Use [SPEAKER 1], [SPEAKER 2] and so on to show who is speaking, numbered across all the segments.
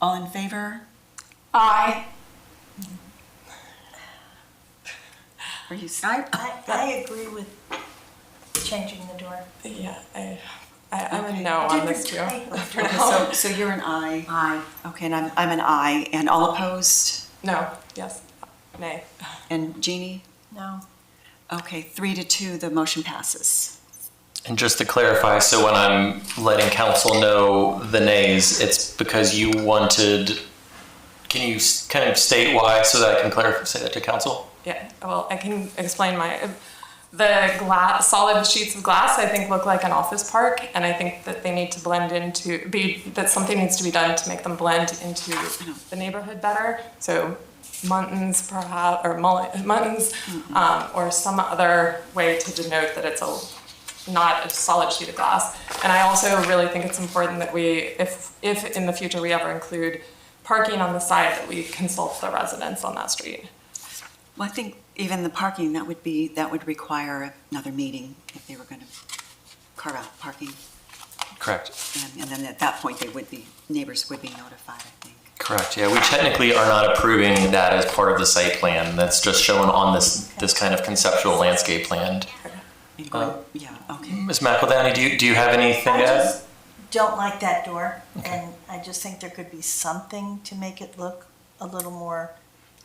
[SPEAKER 1] All in favor?
[SPEAKER 2] Aye.
[SPEAKER 1] Are you snipe?
[SPEAKER 3] I, I agree with changing the door.
[SPEAKER 2] Yeah, I, Oh, I, I'm a
[SPEAKER 1] Okay.
[SPEAKER 2] no on this too.
[SPEAKER 3] Different type.
[SPEAKER 2] For now.
[SPEAKER 1] So, so you're an aye.
[SPEAKER 4] Aye.
[SPEAKER 1] Okay, and I'm, I'm an aye. And all opposed?
[SPEAKER 2] No, yes, nay.
[SPEAKER 1] And Jeannie?
[SPEAKER 3] No.
[SPEAKER 1] Okay, three to two, the motion passes.
[SPEAKER 5] And just to clarify, so when I'm letting council know the nays, it's because you wanted, can you s- kind of state why so that I can clarify, say that to council?
[SPEAKER 2] Yeah, well, I can explain my, the glass, solid sheets of glass, I think look like an office park, and I think that they need to blend into, be, that something needs to be done to make them blend into the neighborhood better. So muntins perhaps, or mulli- muntins, um, or some other way to denote that it's a, not a solid sheet of glass. And I also really think it's important that we, if, if in the future we ever include parking on the side, that we consult the residents on that street.
[SPEAKER 1] Well, I think even the parking, that would be, that would require another meeting if they were going to carve out parking.
[SPEAKER 5] Correct.
[SPEAKER 1] And- And then at that point, they would be, neighbors would be notified, I think.
[SPEAKER 5] Correct, yeah, we technically are not approving that as part of the site plan. That's just shown on this, this kind of conceptual landscape plan.
[SPEAKER 1] And
[SPEAKER 5] Uh,
[SPEAKER 1] going- Yeah, okay.
[SPEAKER 5] Ms. McEldowney, do you, do you have anything
[SPEAKER 3] I
[SPEAKER 5] to add?
[SPEAKER 3] just don't like that door, and I just think there could be something to make it look a little more,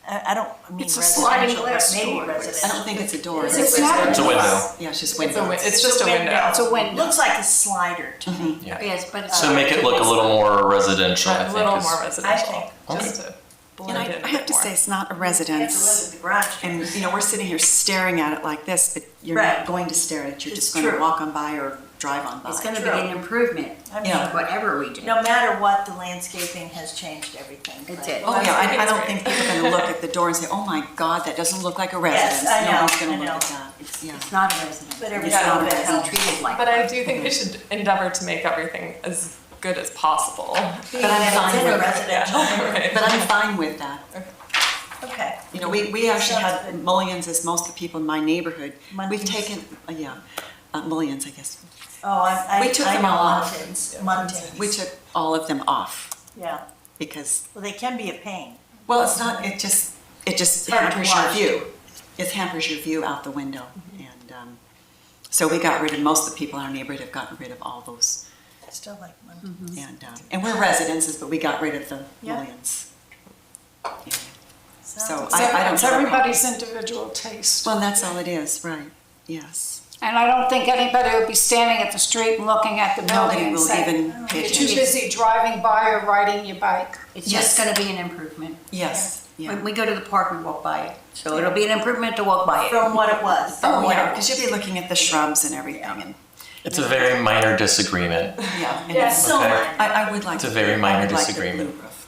[SPEAKER 3] I, I don't mean
[SPEAKER 4] It's a
[SPEAKER 3] residential,
[SPEAKER 4] sliding
[SPEAKER 3] but
[SPEAKER 4] glass
[SPEAKER 3] maybe
[SPEAKER 4] door.
[SPEAKER 1] I
[SPEAKER 3] residential.
[SPEAKER 1] don't think it's a door.
[SPEAKER 4] It's
[SPEAKER 1] is it?
[SPEAKER 4] a window.
[SPEAKER 5] It's a window.
[SPEAKER 1] Yeah, it's just
[SPEAKER 2] It's a,
[SPEAKER 1] windows.
[SPEAKER 2] win- it's just a window.
[SPEAKER 4] It's a window.
[SPEAKER 3] Looks like a slider to
[SPEAKER 1] Mm-hmm.
[SPEAKER 3] me.
[SPEAKER 5] Yeah.
[SPEAKER 4] Yes, but uh, it's.
[SPEAKER 5] So make it look a little more residential, I
[SPEAKER 2] A
[SPEAKER 5] think.
[SPEAKER 2] little
[SPEAKER 5] is-
[SPEAKER 2] more residential,
[SPEAKER 3] I
[SPEAKER 5] think-
[SPEAKER 2] just to
[SPEAKER 1] And
[SPEAKER 2] blend in
[SPEAKER 1] I, I
[SPEAKER 2] a
[SPEAKER 1] have
[SPEAKER 2] bit
[SPEAKER 1] to say,
[SPEAKER 2] more.
[SPEAKER 1] it's not a
[SPEAKER 3] You have to live
[SPEAKER 1] residence.
[SPEAKER 3] with the garage. door.
[SPEAKER 1] And, you know, we're sitting here staring at it like this, but you're
[SPEAKER 3] Right.
[SPEAKER 1] not going to stare at it. You're
[SPEAKER 3] It's
[SPEAKER 1] just going to
[SPEAKER 3] true.
[SPEAKER 1] walk on by or drive on by.
[SPEAKER 4] It's gonna be
[SPEAKER 3] True.
[SPEAKER 4] an improvement,
[SPEAKER 3] I mean,
[SPEAKER 1] Yeah.
[SPEAKER 4] whatever we do.
[SPEAKER 3] No matter what, the landscaping has changed everything.
[SPEAKER 4] It
[SPEAKER 3] but-
[SPEAKER 4] did.
[SPEAKER 1] Oh, yeah, I, I don't
[SPEAKER 2] That's
[SPEAKER 1] think people are gonna look at the door and say, oh my God, that doesn't look like a residence.
[SPEAKER 3] I know,
[SPEAKER 1] No one's gonna
[SPEAKER 3] I
[SPEAKER 1] look
[SPEAKER 3] know.
[SPEAKER 1] at that. It's- yeah.
[SPEAKER 4] It's not a residence.
[SPEAKER 3] But
[SPEAKER 4] It's
[SPEAKER 3] everything
[SPEAKER 4] not
[SPEAKER 3] will be
[SPEAKER 4] gonna be treated like.
[SPEAKER 2] But I do think we should endeavor to make everything as good as possible.
[SPEAKER 1] But I'm
[SPEAKER 3] It's
[SPEAKER 1] fine
[SPEAKER 3] in a
[SPEAKER 1] with,
[SPEAKER 3] residential,
[SPEAKER 1] but I'm fine with that.
[SPEAKER 3] okay.
[SPEAKER 1] You know, we, we actually
[SPEAKER 3] Sounds
[SPEAKER 1] have
[SPEAKER 3] good.
[SPEAKER 1] mullions, as most of the people in my neighborhood, we've
[SPEAKER 3] Muntins.
[SPEAKER 1] taken, uh, yeah, uh, mullions, I guess.
[SPEAKER 3] Oh, I, I.
[SPEAKER 1] We took
[SPEAKER 3] I
[SPEAKER 1] them
[SPEAKER 3] know
[SPEAKER 1] all off.
[SPEAKER 3] Muntins, Muntins.
[SPEAKER 1] We took all of them off
[SPEAKER 3] Yeah,
[SPEAKER 1] because,
[SPEAKER 3] well, they can be a pain.
[SPEAKER 1] well, it's not, it just, it just
[SPEAKER 3] Hard to
[SPEAKER 1] hampers your
[SPEAKER 3] watch.
[SPEAKER 1] view. It hampers your view out the window. And, um, so we got rid of, most of the people in our neighborhood have gotten rid of all those
[SPEAKER 3] Still like Muntins.
[SPEAKER 2] Mm-hmm.
[SPEAKER 1] And, um, and we're residences, but we got rid of the
[SPEAKER 3] Yeah.
[SPEAKER 1] millions. Yeah. So
[SPEAKER 3] Sounds-
[SPEAKER 1] I, I don't.
[SPEAKER 6] It's
[SPEAKER 1] have a problem.
[SPEAKER 6] everybody's individual taste.
[SPEAKER 1] Well, that's all it is, right, yes.
[SPEAKER 6] And I don't think anybody would be standing at the street and looking at the building
[SPEAKER 1] Nobody
[SPEAKER 6] and
[SPEAKER 1] will
[SPEAKER 6] saying,
[SPEAKER 1] even pay
[SPEAKER 6] you're too
[SPEAKER 1] attention.
[SPEAKER 6] busy driving by or riding your bike.
[SPEAKER 4] It's
[SPEAKER 1] Yes.
[SPEAKER 4] just gonna be an improvement.
[SPEAKER 1] Yes, yeah.
[SPEAKER 4] When we go to the park, we walk by it. So it'll be an improvement to walk by it.
[SPEAKER 3] From what it was.
[SPEAKER 1] Oh, yeah, because you'll be looking at the shrubs and everything and,
[SPEAKER 5] It's a very minor disagreement.
[SPEAKER 1] yeah. and
[SPEAKER 3] Yes, so
[SPEAKER 5] Okay.
[SPEAKER 3] minor.
[SPEAKER 1] I, I would like.
[SPEAKER 5] It's a
[SPEAKER 1] to-
[SPEAKER 5] very minor
[SPEAKER 1] I would like the
[SPEAKER 5] disagreement.
[SPEAKER 1] blue roof,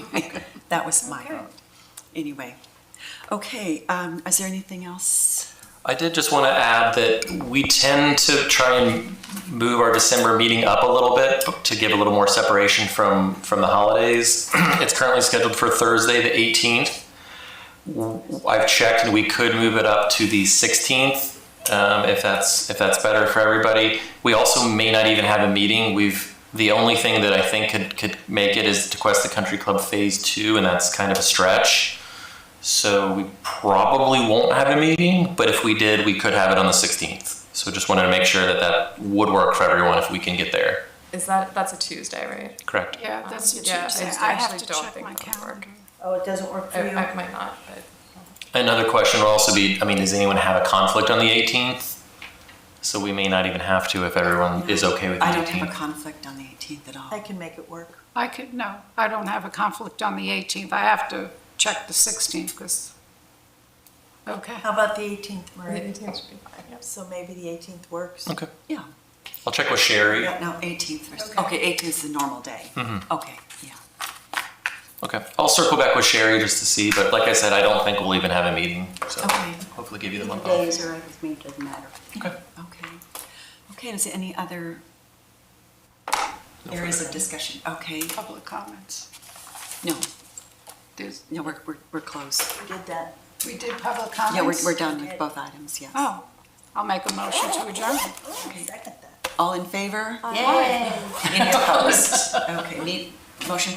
[SPEAKER 1] though, so. That was my vote, anyway. Okay, um, is there anything else?
[SPEAKER 5] I did just want to add that we tend to try and move our December meeting up a little bit to give a little more separation from, from the holidays. it's currently scheduled for Thursday, the 18th. W- I've checked and we could move it up to the 16th um, if that's if that's better for everybody. We also may not even have a meeting. We've the only thing that I think could, could make it is to quest the country club phase two, and that's kind of a stretch. So we probably won't have a meeting, but if we did, we could have it on the 16th. So just wanted to make sure that that would work for everyone if we can get there.
[SPEAKER 2] Is that, that's a Tuesday, right?
[SPEAKER 5] Correct.
[SPEAKER 6] Yeah, that's a
[SPEAKER 2] Yeah, I
[SPEAKER 6] Tuesday.
[SPEAKER 2] just
[SPEAKER 6] I have
[SPEAKER 2] actually
[SPEAKER 6] to
[SPEAKER 2] don't
[SPEAKER 6] check
[SPEAKER 2] think
[SPEAKER 6] my
[SPEAKER 2] that would work.
[SPEAKER 6] calendar.
[SPEAKER 3] Oh, it doesn't work
[SPEAKER 2] I,
[SPEAKER 3] for you?
[SPEAKER 2] I might not, but
[SPEAKER 5] Another question will also be, I mean, does anyone have a conflict on the 18th? So we may not even have to if everyone is okay with the
[SPEAKER 1] I don't have a
[SPEAKER 5] 18th.
[SPEAKER 1] conflict on the eighteenth at all.
[SPEAKER 3] I can make it work.
[SPEAKER 6] I could, no, I don't have a conflict on the 18th. I have to check the 16th because, okay.
[SPEAKER 3] How about the 18th,
[SPEAKER 2] the
[SPEAKER 3] Marie?
[SPEAKER 2] 18th should be fine, yes.
[SPEAKER 3] So maybe the 18th works.
[SPEAKER 5] Okay.
[SPEAKER 1] Yeah.
[SPEAKER 5] I'll check with Sherry.
[SPEAKER 1] Yeah, no, eighteenth, okay, eighteenth is the normal day.
[SPEAKER 5] Mm-hmm.
[SPEAKER 1] Okay, yeah.
[SPEAKER 5] Okay. I'll circle back with Sherry just to see, but like I said, I don't think we'll even have a meeting. So
[SPEAKER 1] Okay.
[SPEAKER 5] hopefully give you the
[SPEAKER 4] The
[SPEAKER 5] month off.
[SPEAKER 4] days are right with me, it doesn't matter.
[SPEAKER 5] Okay.
[SPEAKER 1] Okay. Okay, is there any other areas of discussion? Okay,
[SPEAKER 6] Public comments.
[SPEAKER 1] no,
[SPEAKER 6] There's-
[SPEAKER 1] no, we're, we're, we're closed.
[SPEAKER 3] We did that.
[SPEAKER 6] We did public
[SPEAKER 1] Yeah, we're,
[SPEAKER 6] comments?
[SPEAKER 1] we're done with both items, yes.
[SPEAKER 6] Oh, I'll make a motion to adjourn.
[SPEAKER 3] Second that.
[SPEAKER 1] All in favor?
[SPEAKER 4] Yay.
[SPEAKER 1] Any opposed? Okay, need, motion